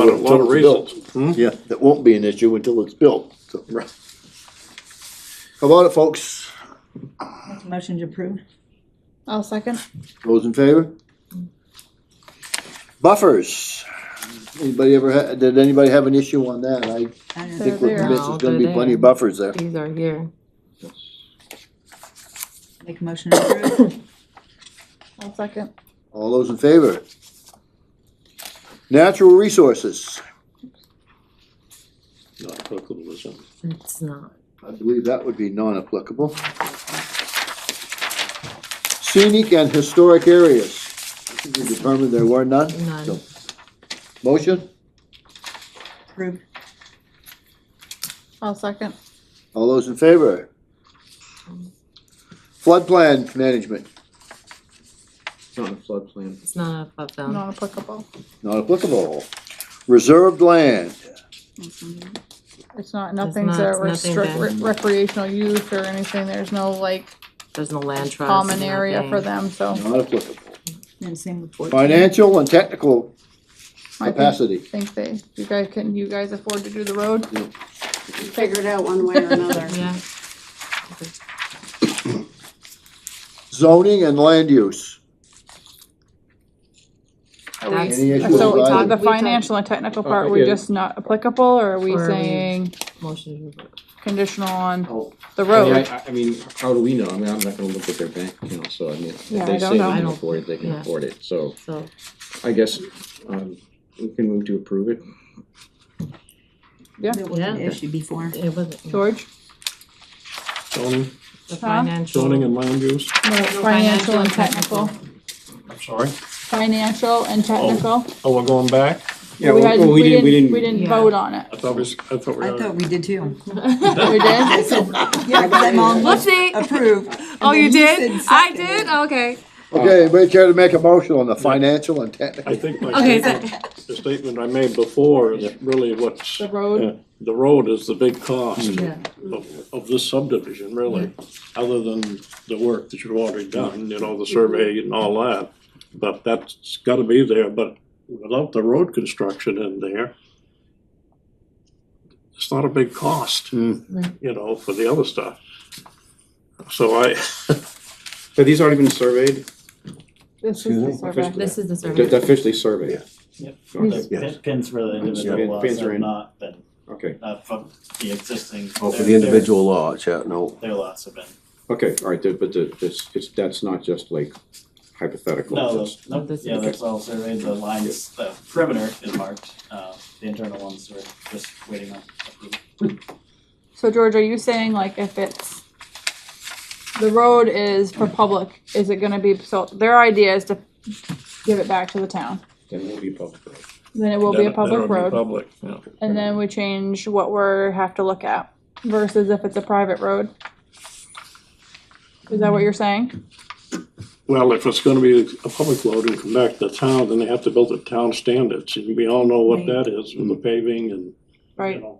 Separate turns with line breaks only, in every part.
lot of- lot of
Until it's built.
reasons.
Yeah, that won't be an issue until it's built, so. How about it, folks?
Motion to approve.
I'll second.
Those in favor? Buffers. Anybody ever, ha- did anybody have an issue on that? I
I don't
They're
think we're
there.
convinced
No,
there's gonna be
they're
plenty of
there.
buffers there.
These are here.
Make a motion to approve.
I'll second.
All those in favor? Natural resources.
Not applicable to some.
It's not.
I believe that would be non-applicable. Scenic and historic areas. We determined there were none.
None.
So, Motion?
Approve.
I'll second.
All those in favor? Flood plan management,
Not a floodplain.
It's not a flood zone.
Not applicable.
not applicable. Reserved land,
It's not, nothing's
not-
a
it's nothing
restrict
bad.
re- recreational use or anything. There's no like
There's no land trust.
common area
nothing.
for them, so
not applicable.
Then same with fourteen.
Financial and technical
I
capacity.
think they, you guys, can you guys afford to do the road?
figure it out one way or another.
Yeah.
Zoning and land use.
Are we-
That's-
Any issue
So
with
it's
talked-
on the
either?
we talked-
financial and technical part,
I
we
get it.
just not applicable, or are we
Or are we-
saying
Motion. to approve.
conditional on
Oh,
the
I mean,
road?
I, I mean, how do we know? I mean, I'm not gonna look at their bank account, so I mean, if
Yeah, I
they
don't
say they
know.
can afford it, they can
Yeah.
afford it, so
So
I guess, um, we can move to approve it.
Yeah.
There was an issue before.
it wasn't.
George?
Zoning,
The
Huh?
financial.
zoning and land use,
No, Financial and technical.
I'm sorry.
Financial and technical.
Oh, we're going back?
Yeah,
We
well,
hadn't,
well,
we didn't, we
Yeah.
didn't vote on it.
I thought we, s- I thought we.
I thought we did too.
We did?
Yeah, because I'm on
Whoopsie.
approve.
Oh, you did? I did? Okay.
Okay, anybody care to make a motion on the financial and
I
technical?
think
Okay,
my
so,
statement, the statement I made before is really what's.
The road.
yeah, The road is the big cost
yeah,
of, of this subdivision, really, other than the work that you've already done, you know, the survey and all that. But that's gotta be there, but without the road construction in there, it's not a big cost,
Hmm.
you know, for the other stuff. So I,
Have these already been surveyed?
This is the survey.
this is the survey.
They're officially surveyed?
Yep.
Okay,
Pin- Pins for the individual
Pin-
lots
pins are
have
in.
not been,
okay,
not from the existing.
Oh, for
their-
the
their-
individual lots, yeah, no.
Their lots have been,
okay, all right, but the, this, it's, that's not just like hypothetical.
no,
that's-
no,
This
yeah,
is-
that's all surveyed, the lines, the perimeter is marked, uh, the internal ones are just waiting on. approval.
So George, are you saying like if it's, the road is for public, is it gonna be, so their idea is to give it back to the town?
Then we'll be public.
Then it will be
Then- then it'll
a public
be
road,
Public, yeah.
and then we change what we're, have to look at versus if it's a private road? Is that what you're saying?
Well, if it's gonna be a public road and come back to the town, then they have to build the town standards, and we all know what that is, with the paving and, you
Right,
know.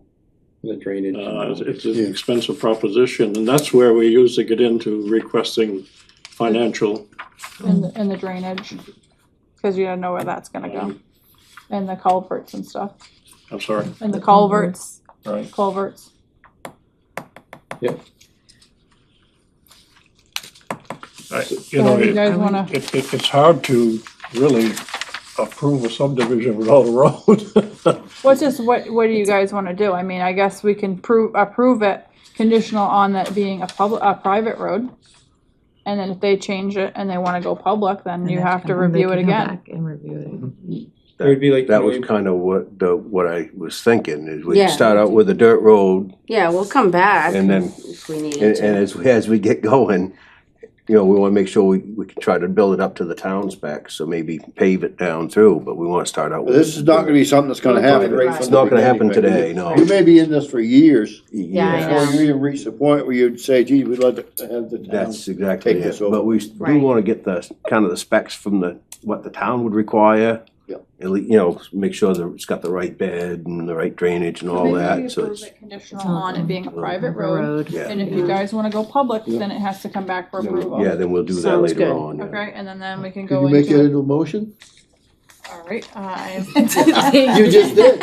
The drainage. and
Uh,
all
it's-
that.
it's an expensive proposition, and that's where we usually get into requesting financial.
and, the- and the drainage, cause you gotta know where that's gonna go,
um,
and the culverts and stuff,
I'm sorry,
and the culverts,
Right.
culverts.
I- you
So
know,
do you
it,
guys wanna?
it, it- it's hard to really approve a subdivision without a road.
What's just, what, what do you guys wanna do? I mean, I guess we can prove, approve it conditional on that being a public, a private road. And then if they change it and they wanna go public, then
And
you
then
have to
come- they
review
can
it
come
again.
back And review
It would be like.
That was kind of what the, what I was thinking, is we
Yeah.
start out with a dirt road,
Yeah, we'll come back.
And then-
If we need
and, and
to.
as, as we get going, you know, we wanna make sure we, we can try to build it up to the town specs, so maybe pave it down through, but we wanna start out with.
This is not gonna be something that's gonna happen right from
It's
the
not gonna happen
beginning,
today,
right?
no.
You may be in this for years,
Yeah, I
before
know.
you even reach the point where you'd say, gee, we'd like to have the town.
That's exactly
Take
it,
this over.
but we s- do
Right.
wanna get the, kind of the specs from the, what the town would require.
Yeah.
At least, you know, make sure that it's got the right bed and the right drainage and all that, so it's.
Conditional on it being a private
it.
road,
Road.
Yeah.
and if you guys wanna go public, then it has to come back for
Yeah,
approval.
then we'll do that
Sounds
later
good.
on. yeah.
Okay, and then, then we can
Can
go
you make that
into,
into a motion?
All right, I am
You just did.